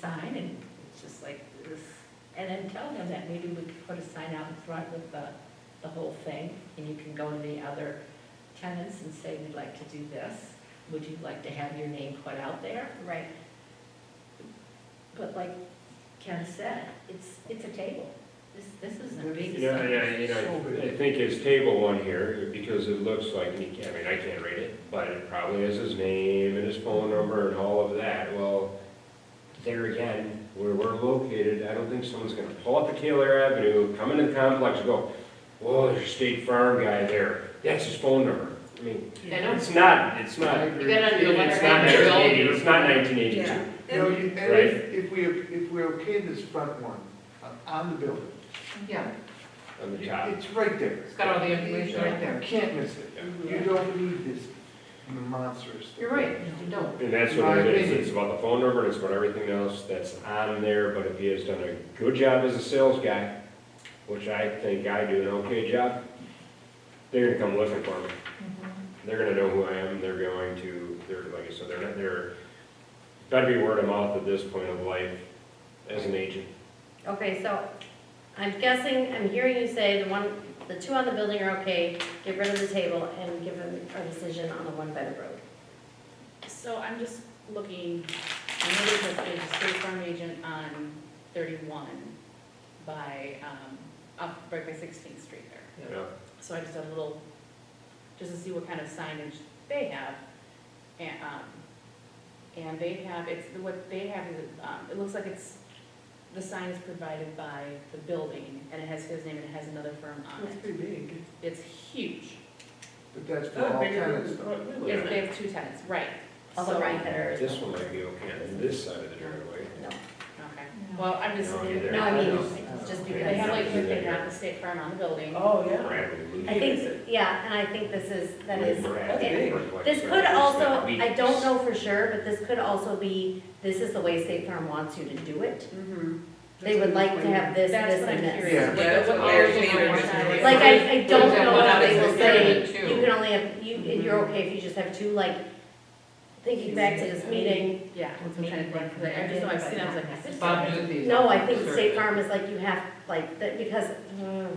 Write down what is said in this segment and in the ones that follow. sign, and it's just like this. And then tell them that maybe we could put a sign out in front with the, the whole thing, and you can go to the other tenants and say, we'd like to do this. Would you like to have your name put out there? Right, But like Ken said, it's, it's a table. This, this isn't a big Yeah, sign. yeah, you know, I think his table one here, because it looks like, and you can't, I mean, I can't read it, but it probably has his name and his phone number and all of that. Well, there again, where we're located, I don't think someone's gonna pull up to Taylor Avenue, come into the complex and go, whoa, there's a State Farm guy there, that's his phone number. I mean, Yeah. it's not, it's not, I it's agree. You got under not letterhead, Bill. nineteen eighty, it's not nineteen yeah. eighty-two. You know, And- you- and Right. if, if we, if we okay this front one, uh, on the building, Yeah, On the top. it's right there. it's got all the information right You there. can't miss it. You don't need this monstrous. You're right, you don't. And that's what it is, it's about the phone number, it's about everything else that's on there, but if he has done a good job as a sales guy, which I think I do an okay job, they're gonna come looking for me. They're gonna know who I am, they're going to, they're, like I said, they're not, they're, gotta be word of mouth at this point of life as an agent. Okay, so I'm guessing, I'm hearing you say the one, the two on the building are okay, get rid of the table and give them a decision on the one by the road. So I'm just looking, I know there's a- there's a State Farm agent on thirty-one by, um, up right by Sixteenth Street there. you know? So I just have a little, just to see what kind of signage they have. And, um, and they have, it's, what they have is, um, it looks like it's, the sign is provided by the building and it has his name and it has another firm on That's it. pretty big, It's huge. but that's for Oh, all tenants though. Yes, they have two tenants, right. All the So- right that are. This one might be okay on this side of the driveway. No, Okay, well, I'm just, No, either. no, I mean, just they have because, like, they have the state farm on the building. Oh, I think, yeah, and I think this is, that is, okay. okay. This could also, I don't know for sure, but this could also be, this is the way State Farm wants you to do it. Mm-hmm. They would like to have this, That's this, what I'm and this. curious, Yeah, what, that's what what they're they're doing on doing. that. Like, I, I Like, don't that know one if out they is will the say, third two. you can only have, you, and Mm-hmm. you're okay if you just have two, like, thinking back to this meeting. Yeah, What's I'm trying to think, 'cause I just know I've seen, it, I was like, I said Bob something. Newby's No, on I think the State survey. Farm is like, you have, like, that, because, mm,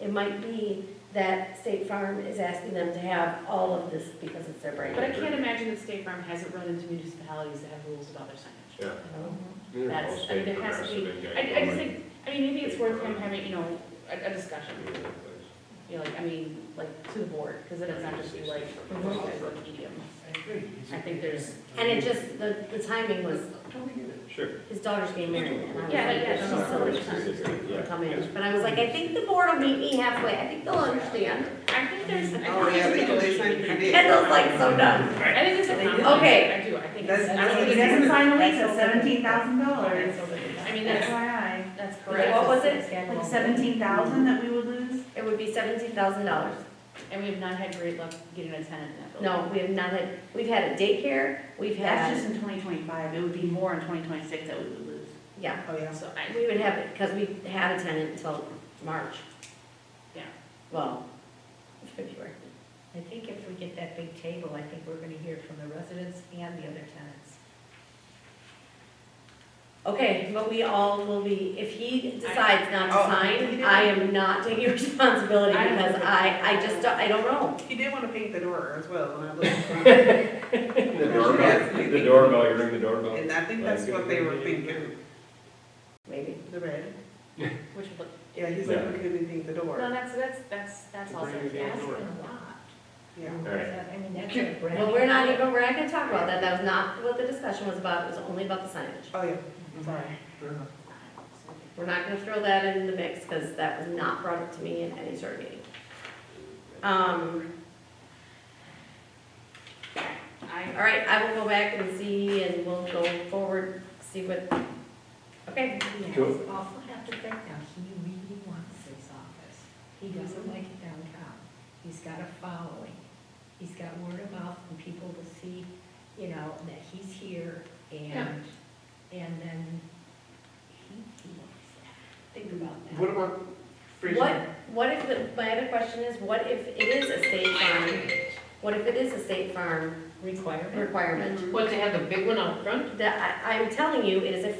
it might be that State Farm is asking them to have all of this because it's their brand. But I can't imagine that State Farm hasn't run into municipalities that have rules about their signage. Yeah. That's- I mean, there has to I, I just think, I mean, maybe it's worth him having, you know, a, a discussion, you know, like, I mean, like, to the board, because then it's not just be like, Mhm. as a medium. I agree. I think there's- And it just, the, the timing was, Totally get it. Sure. his daughter's getting married, and I was Yeah, yeah, no, no, like, no, she's so excited yeah. to come in. But I was like, I think the board will meet me halfway, I think they'll understand. I think there's. I Oh, think yeah, there's- because they sign pretty big. Kendall's like, so done. I think it's a compromise, Okay. I do, I think. it's- I That's- don't think He it's- doesn't sign a lease at seventeen thousand dollars. That's over the- I mean, that's, FYI, that's correct. What was it? like seventeen thousand that we would lose? It would be seventeen thousand dollars. And we have not had great luck getting a tenant in that building. No, we have not had, we've had a daycare, we've That's had, just in twenty twenty-five, it would be more in twenty twenty-six that we would lose. yeah, Oh, yeah. So I, we would have it, because we had a tenant until March. Yeah. Well, February. I think if we get that big table, I think we're gonna hear from the residents and the other tenants. Okay, but we all will be, if he decides not to Oh, sign, you I am not taking responsibility I don't because know. I, I just, don't- I don't know. He did want to paint the door as well, and I looked, The doorbell, the doorbell, you ring the doorbell. and I think that's what they were thinking, Maybe. the red. which would look, Yeah, he's like, we couldn't paint the no, door. that's, that's, that's, that's To also, bring it asking in a or- lot. Yeah. All right. I mean, that's a brand. Well, we're not even, we're not gonna talk about that. That was not what the discussion was about. It was only about the signage. Oh, yeah, sorry. Fair enough. We're not gonna throw that in the mix, because that was not brought up to me in any sort of meeting. Um, I, all right, I will go back and see, and we'll go forward, see what, okay. He Cool. has awful have to think now, he really wants this office. He doesn't like it downtown. He's got a following. He's got word of mouth and people will see, you know, that he's here and, and then he, he wants that. Think about that. What about freezing? What, what if, the my other question is, what if it is a state farm? What if it is a state farm Requirement. requirement? What, they have the big one up front? That, I, I'm telling you, it is a